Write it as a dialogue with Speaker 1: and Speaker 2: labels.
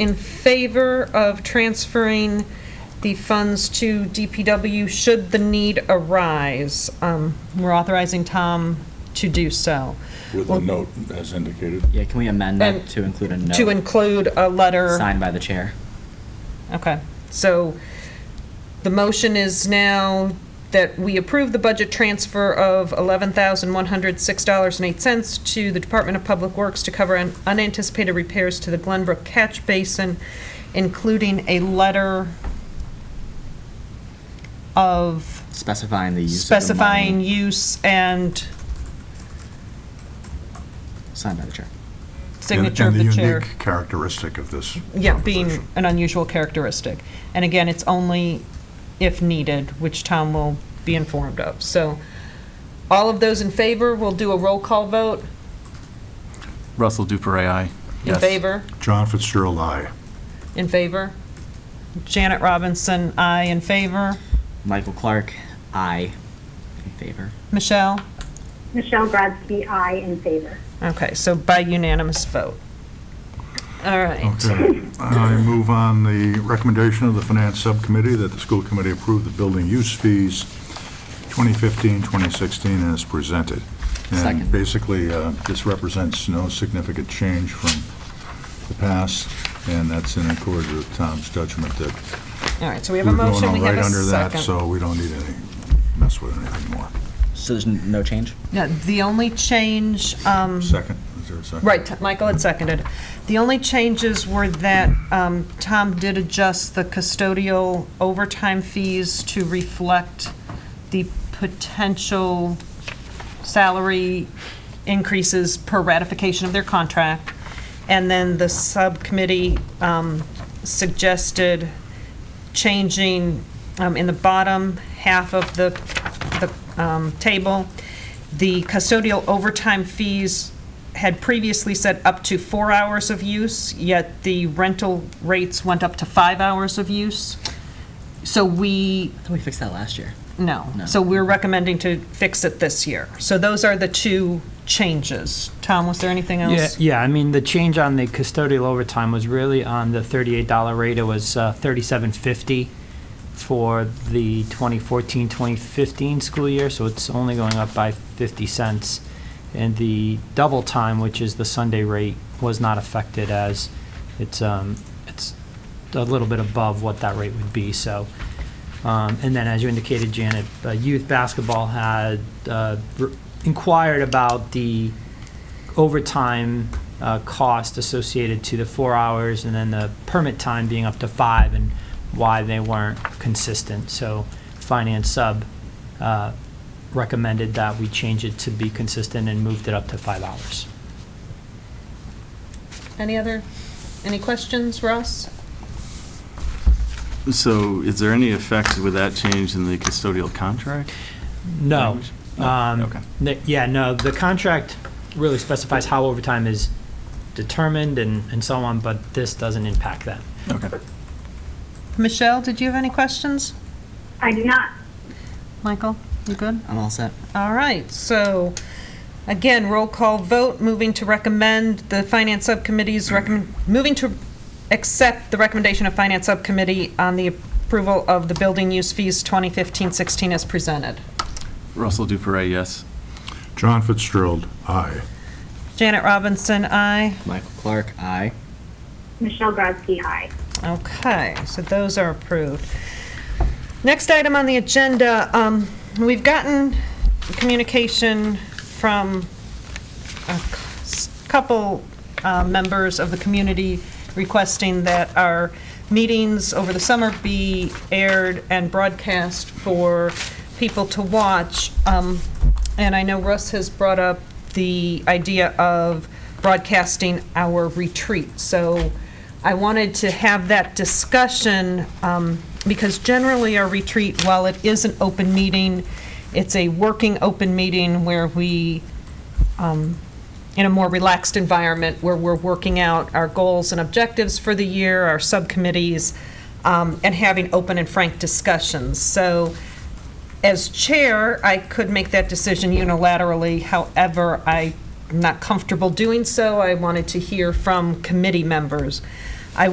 Speaker 1: in favor of transferring the funds to DPW should the need arise. Um, We're authorizing Tom to do so,
Speaker 2: with a note as indicated.
Speaker 3: Yeah, can we amend
Speaker 1: And
Speaker 3: that to include a
Speaker 1: to
Speaker 3: note
Speaker 1: include a letter.
Speaker 3: signed by the chair?
Speaker 1: Okay, so the motion is now that we approve the budget transfer of $11,106.08 to the Department of Public Works to cover un- unanticipated repairs to the Glenbrook Catch Basin, including a letter of
Speaker 3: Specifying the use of the money
Speaker 1: specifying use and
Speaker 3: Signed by the chair.
Speaker 1: signature of the
Speaker 4: And the
Speaker 1: chair.
Speaker 4: unique characteristic of this
Speaker 1: Yeah, being
Speaker 4: proposition.
Speaker 1: an unusual characteristic. And again, it's only if needed, which Tom will be informed of. So all of those in favor, we'll do a roll call vote.
Speaker 5: Russell Duper, aye.
Speaker 1: In
Speaker 5: Yes.
Speaker 1: favor?
Speaker 4: John Fitzgerald, aye.
Speaker 1: In favor? Janet Robinson, aye. In favor?
Speaker 3: Michael Clark, aye. In favor.
Speaker 1: Michelle?
Speaker 6: Michelle Grodzki, aye in favor.
Speaker 1: Okay, so by unanimous vote. All right.
Speaker 4: Okay. I move on the recommendation of the Finance Subcommittee that the school committee approve the building use fees 2015, 2016 as presented. And
Speaker 3: Second.
Speaker 4: basically, uh, this represents no significant change from the past, and that's in accord with Tom's judgment that
Speaker 1: All right, so we have a
Speaker 4: we're going
Speaker 1: motion,
Speaker 4: all
Speaker 1: we have a
Speaker 4: right under that,
Speaker 1: second.
Speaker 4: so we don't need any, mess with anything more.
Speaker 3: So there's n- no change?
Speaker 1: Yeah, The only change, um,
Speaker 4: Second, is there a second?
Speaker 1: Right, Michael had seconded. The only changes were that um, Tom did adjust the custodial overtime fees to reflect the potential salary increases per ratification of their contract. And then the subcommittee um, suggested changing um, in the bottom half of the, the um, table. The custodial overtime fees had previously said up to four hours of use, yet the rental rates went up to five hours of use. So we,
Speaker 3: I thought we fixed that last year.
Speaker 1: no.
Speaker 3: No.
Speaker 1: So we're recommending to fix it this year. So those are the two changes. Tom, was there anything
Speaker 7: Yeah,
Speaker 1: else?
Speaker 7: yeah, I mean, the change on the custodial overtime was really on the thirty-eight dollar rate, it was uh, thirty-seven fifty for the 2014-2015 school year, so it's only going up by fifty cents. And the double time, which is the Sunday rate, was not affected as it's, um, it's a little bit above what that rate would be, so. Um, And then, as you indicated, Janet, uh, youth basketball had uh, re- inquired about the overtime uh, cost associated to the four hours and then the permit time being up to five and why they weren't consistent. So Finance Sub uh, recommended that we change it to be consistent and moved it up to five hours.
Speaker 1: Any other, any questions, Russ?
Speaker 5: So is there any effect with that change in the custodial contract?
Speaker 7: No.
Speaker 5: language?
Speaker 7: Um,
Speaker 5: Okay.
Speaker 7: the- Yeah, no, the contract really specifies how overtime is determined and and so on, but this doesn't impact that.
Speaker 5: Okay.
Speaker 1: Michelle, did you have any questions?
Speaker 6: I do not.
Speaker 1: Michael, you good?
Speaker 3: I'm all set.
Speaker 1: All right, so again, roll call vote, moving to recommend the Finance Subcommittee's recommend, moving to accept the recommendation of Finance Subcommittee on the approval of the building use fees 2015-16 as presented.
Speaker 5: Russell Duper, yes.
Speaker 4: John Fitzgerald, aye.
Speaker 1: Janet Robinson, aye.
Speaker 3: Michael Clark, aye.
Speaker 6: Michelle Grodzki, aye.
Speaker 1: Okay, so those are approved. Next item on the agenda, um, we've gotten communication from a c- couple uh, members of the community requesting that our meetings over the summer be aired and broadcast for people to watch. Um, And I know Russ has brought up the idea of broadcasting our retreat. So I wanted to have that discussion um, because generally our retreat, while it is an open meeting, it's a working open meeting where we in a more relaxed environment where we're working out our goals and objectives for the year, our subcommittees, um, and having open and frank discussions. So as chair, I could make that decision unilaterally. However, I'm not comfortable doing so. I wanted to hear from committee members.